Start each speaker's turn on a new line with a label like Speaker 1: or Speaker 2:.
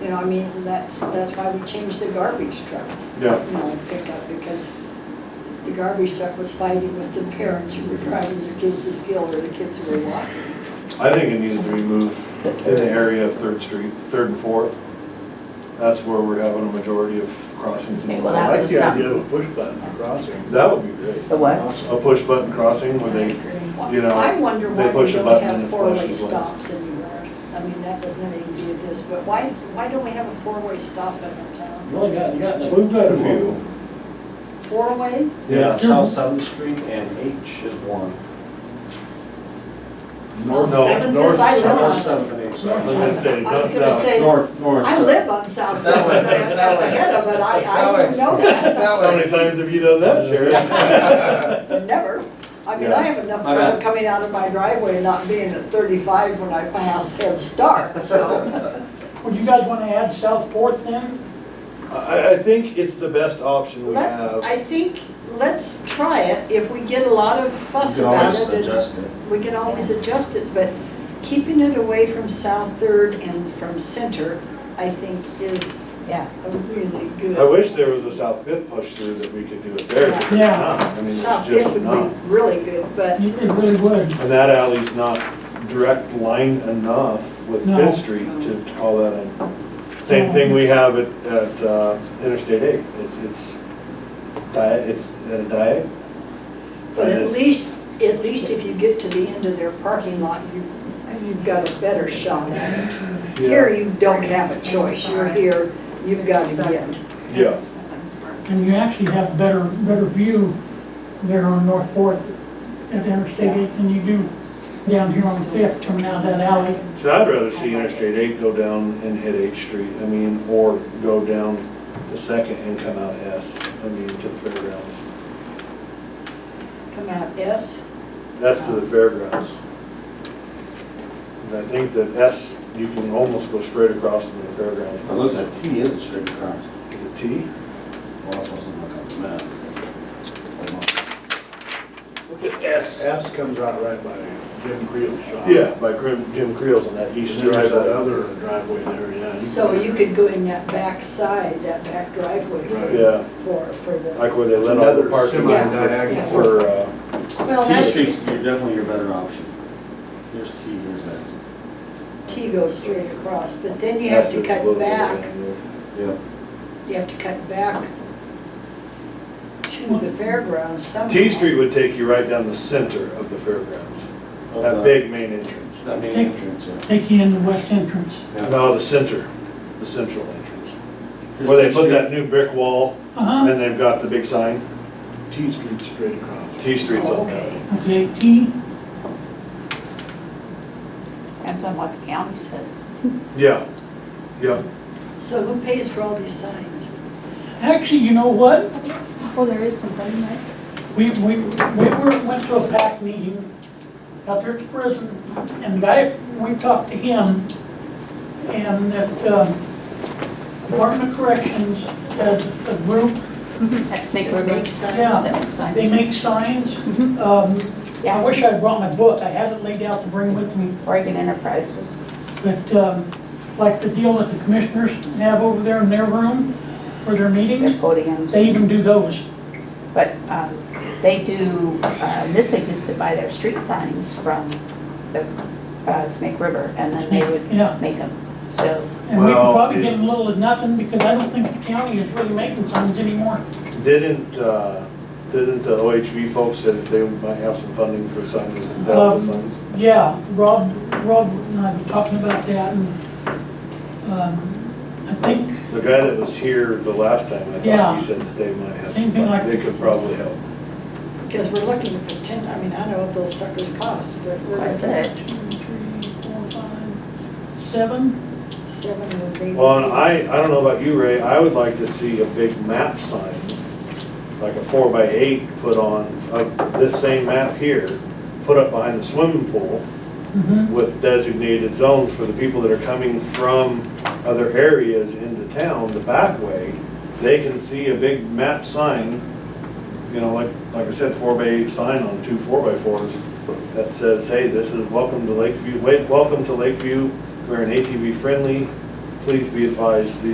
Speaker 1: You know, I mean, that's, that's why we changed the garbage truck,
Speaker 2: Yeah,
Speaker 1: you know, pickup, because the garbage truck was fighting with the parents who were driving their kids to school or the kids who were walking.
Speaker 2: I think it needs to be moved in the area of Third Street, Third and Fourth. That's where we're having a majority of crossings.
Speaker 3: Okay, well,
Speaker 2: That
Speaker 3: that-
Speaker 4: I like
Speaker 3: was
Speaker 4: the
Speaker 3: something.
Speaker 4: idea of a push button crossing.
Speaker 2: would be great.
Speaker 3: The what?
Speaker 2: A push button crossing where they, you know,
Speaker 1: I wonder
Speaker 2: they
Speaker 1: why we
Speaker 2: push a
Speaker 1: don't
Speaker 2: button and
Speaker 1: have
Speaker 2: it
Speaker 1: four-way
Speaker 2: flashes lights.
Speaker 1: stops anywhere. I mean, that doesn't have anything to do with this, but why, why don't we have a four-way stop in our town?
Speaker 5: You only got, you got like.
Speaker 2: we've got a
Speaker 5: two of
Speaker 2: few.
Speaker 1: Four-way?
Speaker 5: them.
Speaker 2: Yeah.
Speaker 5: South Seventh Street and H is one.
Speaker 2: No,
Speaker 1: South Seventh
Speaker 2: north-
Speaker 1: is I live
Speaker 2: south
Speaker 1: on.
Speaker 5: North Seventh and H.
Speaker 2: I was gonna
Speaker 5: North,
Speaker 2: say, it
Speaker 1: I was
Speaker 2: does
Speaker 1: gonna
Speaker 2: sound-
Speaker 1: say-
Speaker 5: North, north.
Speaker 1: I live on South
Speaker 6: That way,
Speaker 1: Seventh, I'm
Speaker 6: that way.
Speaker 1: ahead of it, I,
Speaker 6: That
Speaker 1: I
Speaker 6: way.
Speaker 1: didn't know that,
Speaker 6: That
Speaker 2: How many
Speaker 6: way.
Speaker 2: times have you done that, Sharon?
Speaker 1: never. I mean,
Speaker 2: Yeah.
Speaker 1: I have enough
Speaker 5: My
Speaker 1: trouble
Speaker 5: bad.
Speaker 1: coming out of my driveway and not being at thirty-five when I pass Head Start, so.
Speaker 7: Would you guys want to add South Fourth then?
Speaker 2: I, I think it's the best option we
Speaker 1: Let-
Speaker 2: have.
Speaker 1: I think, let's try it, if we get a lot of
Speaker 5: You
Speaker 1: fuss
Speaker 5: can
Speaker 1: about
Speaker 5: always
Speaker 1: it. and-
Speaker 5: adjust it.
Speaker 1: We can always adjust it, but keeping it away from South Third and from Center, I think is
Speaker 3: Yeah.
Speaker 1: a really good.
Speaker 2: I wish there was a South Fifth push through that we could do it there. but there's
Speaker 7: Yeah.
Speaker 2: not. I mean, there's
Speaker 1: South Fifth
Speaker 2: just
Speaker 1: would
Speaker 2: not.
Speaker 1: be really good, but
Speaker 7: It it really would.
Speaker 2: And that alley's not direct line enough with
Speaker 7: No.
Speaker 2: Fifth Street to to call that in. Same thing we have at, at uh, Interstate eight, it's, it's diet, it's at a diet.
Speaker 1: But
Speaker 2: And
Speaker 1: at
Speaker 2: it's-
Speaker 1: least, at least if you get to the end of their parking lot, you, you've got a better shot. Here, you don't have a choice, you're here, you've got to get.
Speaker 2: Yeah,
Speaker 7: And you actually have better, better view there on North Fourth at Interstate eight than you do down here on Fifth coming out that alley.
Speaker 2: so I'd rather see Interstate eight go down and hit H Street, I mean, or go down the second and come out S, I mean, to the fairgrounds.
Speaker 1: Come out S,
Speaker 2: That's to the fairgrounds. And I think that S, you can almost go straight across to the fairgrounds.
Speaker 5: It looks like T is a straight across.
Speaker 2: Is it T?
Speaker 5: Well, that's supposed to look on the map.
Speaker 2: Look at S.
Speaker 4: S comes out right by Jim Creel's shop.
Speaker 2: Yeah, by Grim- Jim Creel's on that
Speaker 4: And
Speaker 2: east
Speaker 4: there's that
Speaker 2: driveway.
Speaker 4: other driveway there, yeah.
Speaker 1: so you could go in that back side, that back driveway
Speaker 4: Right.
Speaker 2: Yeah,
Speaker 1: for, for the.
Speaker 2: like where they let all the
Speaker 4: Another
Speaker 2: parking
Speaker 4: semi-diagonal.
Speaker 2: for, for, uh,
Speaker 1: Well,
Speaker 5: T
Speaker 1: Oh, that-
Speaker 5: Street's your- definitely your better option. Here's T, here's S.
Speaker 1: T goes straight across, but then you have
Speaker 2: S
Speaker 1: to
Speaker 2: is a little
Speaker 1: cut
Speaker 2: bit
Speaker 1: back,
Speaker 2: down there.
Speaker 5: Yeah.
Speaker 1: you have to cut back to the fairgrounds somehow.
Speaker 2: T Street would take you right down the center of the fairgrounds, that big main entrance.
Speaker 5: That main entrance, yeah.
Speaker 7: Take you in the west entrance.
Speaker 5: Yeah.
Speaker 2: No, the center, the central entrance.
Speaker 5: Here's
Speaker 2: Where they
Speaker 5: T
Speaker 2: put
Speaker 5: Street.
Speaker 2: that new brick wall
Speaker 7: Uh-huh.
Speaker 2: and they've got the big sign,
Speaker 4: T Street straight across.
Speaker 2: T Street's on that.
Speaker 1: Oh, Okay,
Speaker 7: Okay, T,
Speaker 3: Depends on what the county says.
Speaker 2: Yeah, yeah.
Speaker 1: so who pays for all these signs?
Speaker 7: actually, you know what?
Speaker 8: Oh, there is something, right?
Speaker 7: We, we, we were, went to a PAC meeting out there at the prison, and guy, we talked to him, and that, um, Department of Corrections has a group
Speaker 3: That Snake
Speaker 1: That
Speaker 3: River.
Speaker 1: makes signs.
Speaker 7: Yeah.
Speaker 3: That makes sense.
Speaker 7: They make signs. Um, I wish I'd brought my book, I have it laid out to bring with me,
Speaker 3: Oregon Enterprises.
Speaker 7: but um, like the deal that the commissioners have over there in their room for their
Speaker 3: their
Speaker 7: meetings, they
Speaker 3: podiums.
Speaker 7: even do those.
Speaker 3: But um, they do, uh, Nissa used to buy their street signs from the uh, Snake River, and then they
Speaker 7: Yeah.
Speaker 3: would make them. So,
Speaker 7: And we
Speaker 2: Well,
Speaker 7: can probably
Speaker 2: it-
Speaker 7: get them little to nothing because I don't think the county is really making signs anymore.
Speaker 2: Didn't, uh, didn't the OHV folks say that they might have some funding for signs and ballot
Speaker 7: Um,
Speaker 2: signs?
Speaker 7: Yeah, Rob, Rob and I were talking about that and um, I think,
Speaker 2: The guy that was here the last time, I thought
Speaker 7: Yeah.
Speaker 2: he said that they might have some
Speaker 7: Anything like-
Speaker 2: funding. They could probably help.
Speaker 1: Because we're looking at the ten, I mean, I know what those suckers cost, but we're
Speaker 3: Quite a
Speaker 1: looking at
Speaker 7: two, three, four, five, seven.
Speaker 1: seven or maybe.
Speaker 2: Well, and
Speaker 1: eight.
Speaker 2: I, I don't know about you, Ray, I would like to see a big map sign, like a four by eight put on, of this same map here, put up behind the swimming pool
Speaker 7: Mhm.
Speaker 2: with designated zones for the people that are coming from other areas into town, the back way. They can see a big map sign, you know, like, like I said, four by eight sign on two four by fours that says, hey, this is welcome to Lakeview, wait, welcome to Lakeview. We're an ATV friendly please be advised, the